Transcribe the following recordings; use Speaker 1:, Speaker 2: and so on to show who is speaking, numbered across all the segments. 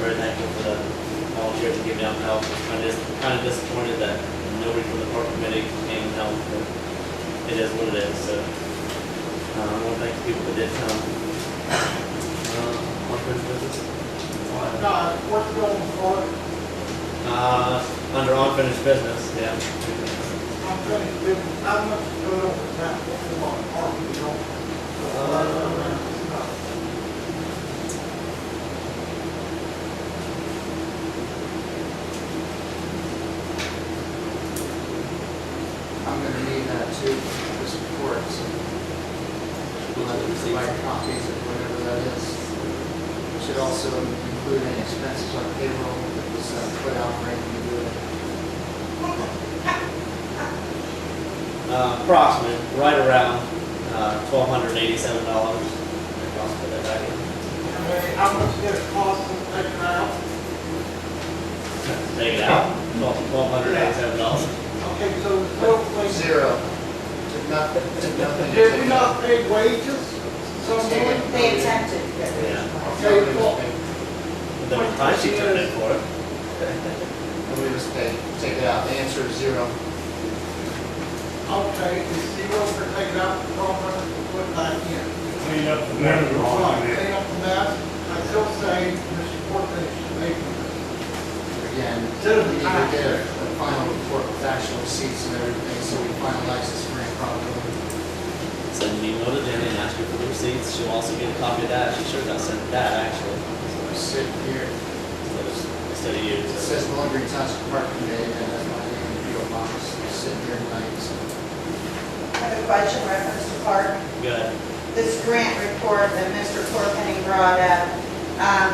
Speaker 1: very thankful for the volunteers who gave out help. I'm just kind of disappointed that nobody from the park committee came and helped, but it is what it is, so. uh, I want to thank the people that did come. Uh, on first business?
Speaker 2: Uh, what's going for,
Speaker 1: Uh, under unfinished business, yeah.
Speaker 2: I'm trying to, do- how much going on with that, what's going on, are we going?
Speaker 1: Uh,
Speaker 3: I'm gonna need that too, for this report, so. We'll have to provide copies of whatever that is. We Should also include any expenses on payroll that was uh, put out right when you do it.
Speaker 1: Uh, approximate, right around, uh, twelve hundred eighty-seven dollars. I'll put that back in.
Speaker 2: Okay, How much did it cost to take it out?
Speaker 1: Take it out, twelve, twelve hundred eighty-seven dollars.
Speaker 2: Okay, so hopefully,
Speaker 3: Zero. Did not, did nothing.
Speaker 2: did we not pay wages? Someone,
Speaker 4: They attempted.
Speaker 1: Yeah.
Speaker 3: Nobody was paid.
Speaker 1: The time she turned in for it.
Speaker 3: Nobody was paid. Take it out. The answer is zero.
Speaker 2: okay, is zero for taking out the twelve hundred to put back in.
Speaker 5: clean up the mess wrong
Speaker 2: Right,
Speaker 5: there.
Speaker 2: Clean up the mess, I still say, Mr. Portman should make it.
Speaker 3: Again,
Speaker 2: Zero.
Speaker 3: we need to get a a final report with actual receipts and everything, so we finalize this grant properly.
Speaker 1: Send an email to Jenny and ask her for the receipts. She'll also get a copy of that. She should have sent that actually.
Speaker 3: We're sitting here.
Speaker 1: Instead of- Instead of you.
Speaker 3: It
Speaker 1: so-
Speaker 3: says laundry township park committee, and that's my name, P O box, sitting here tonight, so.
Speaker 4: I have a question reference to Park.
Speaker 1: Go ahead.
Speaker 4: This grant report that Mr. Corpenny brought up, um,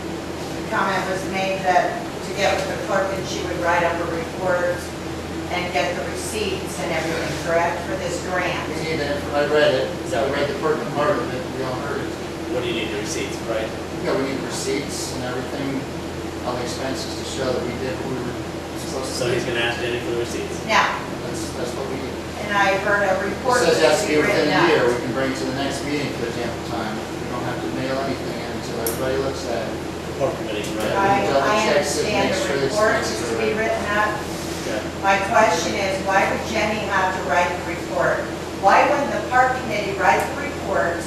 Speaker 4: the comment was made that to get with the clerk and she would write up her reports and get the receipts and everything, correct, for this
Speaker 3: We
Speaker 4: grant?
Speaker 3: need that, I read it, I read the pertinent part of it, we all heard it.
Speaker 1: What do you need the receipts, right?
Speaker 3: Yeah, we need receipts and everything, all the expenses to show that we did what we were supposed
Speaker 1: So
Speaker 3: to
Speaker 1: he's
Speaker 3: do.
Speaker 1: gonna ask Jenny for the receipts.
Speaker 4: Now,
Speaker 3: That's, that's what we, it
Speaker 4: and I heard a report
Speaker 3: says that's to
Speaker 4: that's
Speaker 3: be
Speaker 4: be
Speaker 3: within
Speaker 4: written
Speaker 3: a year, we
Speaker 4: up.
Speaker 3: can bring it to the next meeting for example time. We don't have to mail anything in until everybody looks at it.
Speaker 1: The park committee, can write
Speaker 3: Right.
Speaker 1: it.
Speaker 4: I,
Speaker 3: Double
Speaker 4: I
Speaker 3: checks it,
Speaker 4: understand
Speaker 3: make sure
Speaker 4: the
Speaker 3: it's-
Speaker 4: report is to be written up,
Speaker 1: Okay.
Speaker 4: My question is, why would Jenny have to write the report? Why wouldn't the park committee write the report,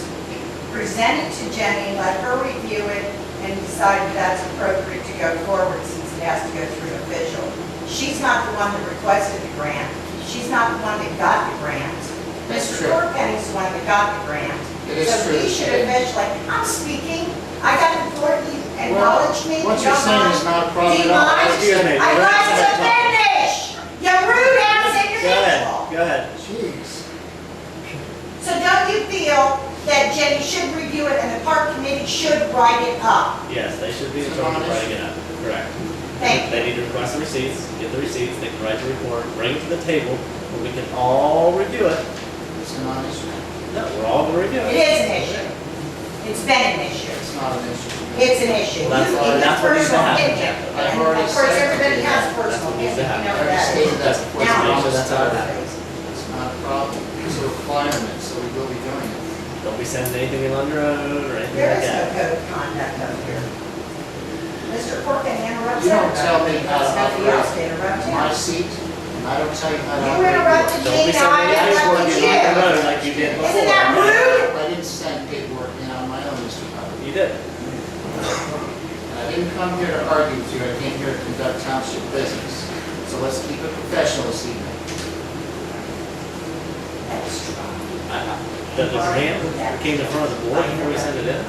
Speaker 4: present it to Jenny, let her review it, and decide if that's appropriate to go forward since it has to go through official? She's not the one that requested the grant. She's not the one that got the grant.
Speaker 3: That's
Speaker 4: Mr.
Speaker 3: true.
Speaker 4: Corpenny's the one that got the grant.
Speaker 3: It is
Speaker 4: So
Speaker 3: true.
Speaker 4: he should officially, I'm speaking, I got the board, you acknowledge me, you
Speaker 3: What you're
Speaker 4: don't
Speaker 3: saying is
Speaker 4: mind.
Speaker 3: not a problem at all. That's
Speaker 4: Demise.
Speaker 3: good.
Speaker 1: me.
Speaker 4: I'd like to finish! You're rude as an
Speaker 1: Go ahead,
Speaker 4: individual.
Speaker 1: go ahead.
Speaker 3: Jeez.
Speaker 4: So don't you feel that Jenny should review it and the park committee should write it up?
Speaker 1: Yes, they should be in charge of writing it up. Correct.
Speaker 4: Thank you.
Speaker 1: They need to request the receipts, get the receipts, they can write the report, bring it to the table, where we can all review it.
Speaker 3: It's a non-issue.
Speaker 1: No, we're all gonna review
Speaker 4: It
Speaker 1: it.
Speaker 4: is an issue. It's been an issue.
Speaker 3: It's not an issue.
Speaker 4: It's an issue.
Speaker 1: Well, that's
Speaker 4: You-
Speaker 1: all-
Speaker 4: it's
Speaker 1: that's what needs to
Speaker 4: personal
Speaker 1: happen,
Speaker 4: opinion.
Speaker 1: Jeff.
Speaker 3: I've
Speaker 4: And
Speaker 3: already
Speaker 4: of course,
Speaker 3: said-
Speaker 4: everybody has
Speaker 1: That's
Speaker 4: personal
Speaker 1: what needs
Speaker 4: opinion,
Speaker 1: to
Speaker 4: you know
Speaker 1: happen.
Speaker 4: that.
Speaker 3: Every state that's
Speaker 1: That's-
Speaker 3: before the
Speaker 4: Now-
Speaker 1: make sure that's how it
Speaker 3: office,
Speaker 1: happens.
Speaker 3: it's not a problem. It's a requirement, so we will be doing it.
Speaker 1: Don't be sending anything in under oath or anything
Speaker 4: There
Speaker 1: like
Speaker 4: is no
Speaker 1: that.
Speaker 4: code of conduct up here. Mr. Corkin interrupts
Speaker 3: You don't
Speaker 4: everybody.
Speaker 3: tell me how to
Speaker 4: It's Nobody else
Speaker 3: operate.
Speaker 4: to interrupt him.
Speaker 3: My seat, and I don't tell you how to.
Speaker 4: You
Speaker 3: operate.
Speaker 4: interrupted
Speaker 1: Don't be
Speaker 4: me, now I
Speaker 1: sending paperwork
Speaker 4: interrupted
Speaker 1: in under
Speaker 4: you.
Speaker 1: oath like you did before.
Speaker 4: Isn't that rude?
Speaker 3: I didn't send paperwork in on my own, Mr. Hubbard.
Speaker 1: You did.
Speaker 3: And I didn't come here to argue with you. I came here to conduct township business. So let's keep it professional this evening.
Speaker 4: That's true.
Speaker 1: I- I- The, the grant came in front of the board before we sent it in.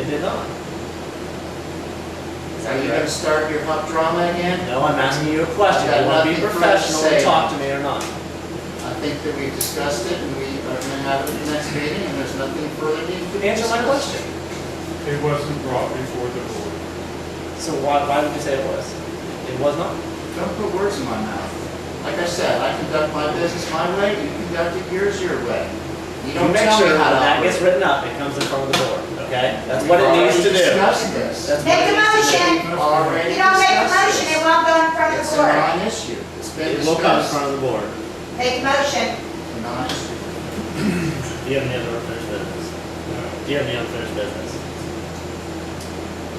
Speaker 1: It did not. Is
Speaker 3: Are
Speaker 1: that
Speaker 3: you gonna
Speaker 1: correct?
Speaker 3: start your hot drama again?
Speaker 1: No, I'm asking you a question. You
Speaker 3: I've got
Speaker 1: wanna be
Speaker 3: nothing for us to
Speaker 1: professional and
Speaker 3: say.
Speaker 1: talk to me or not?
Speaker 3: I think that we've discussed it, and we are gonna have it at the next meeting, and there's nothing further needed. to
Speaker 1: Answer my
Speaker 3: discuss.
Speaker 1: question.
Speaker 5: It wasn't brought before the board.
Speaker 1: So why, why would you say it was? It was not?
Speaker 3: Don't put words in my mouth. Like I said, I conduct my business my way, you conduct it yours your way. You
Speaker 1: You
Speaker 3: don't
Speaker 1: make
Speaker 3: tell
Speaker 1: sure
Speaker 3: me how
Speaker 1: when that
Speaker 3: to
Speaker 1: gets
Speaker 3: operate.
Speaker 1: written up, it comes in front of the board, okay? That's what it needs to do.
Speaker 3: We've Already discussed this.
Speaker 1: That's
Speaker 4: Make a motion.
Speaker 3: Already
Speaker 4: You don't make a
Speaker 3: discussed
Speaker 4: motion,
Speaker 3: this.
Speaker 4: it won't go in front of
Speaker 3: It's
Speaker 4: the
Speaker 3: a
Speaker 4: board.
Speaker 3: non-issue. It's been
Speaker 1: It will come in
Speaker 3: discussed.
Speaker 1: front of the board.
Speaker 4: Make a motion.
Speaker 3: A Non-issue.
Speaker 1: Do you have any other unfinished business? Do you have any unfinished business?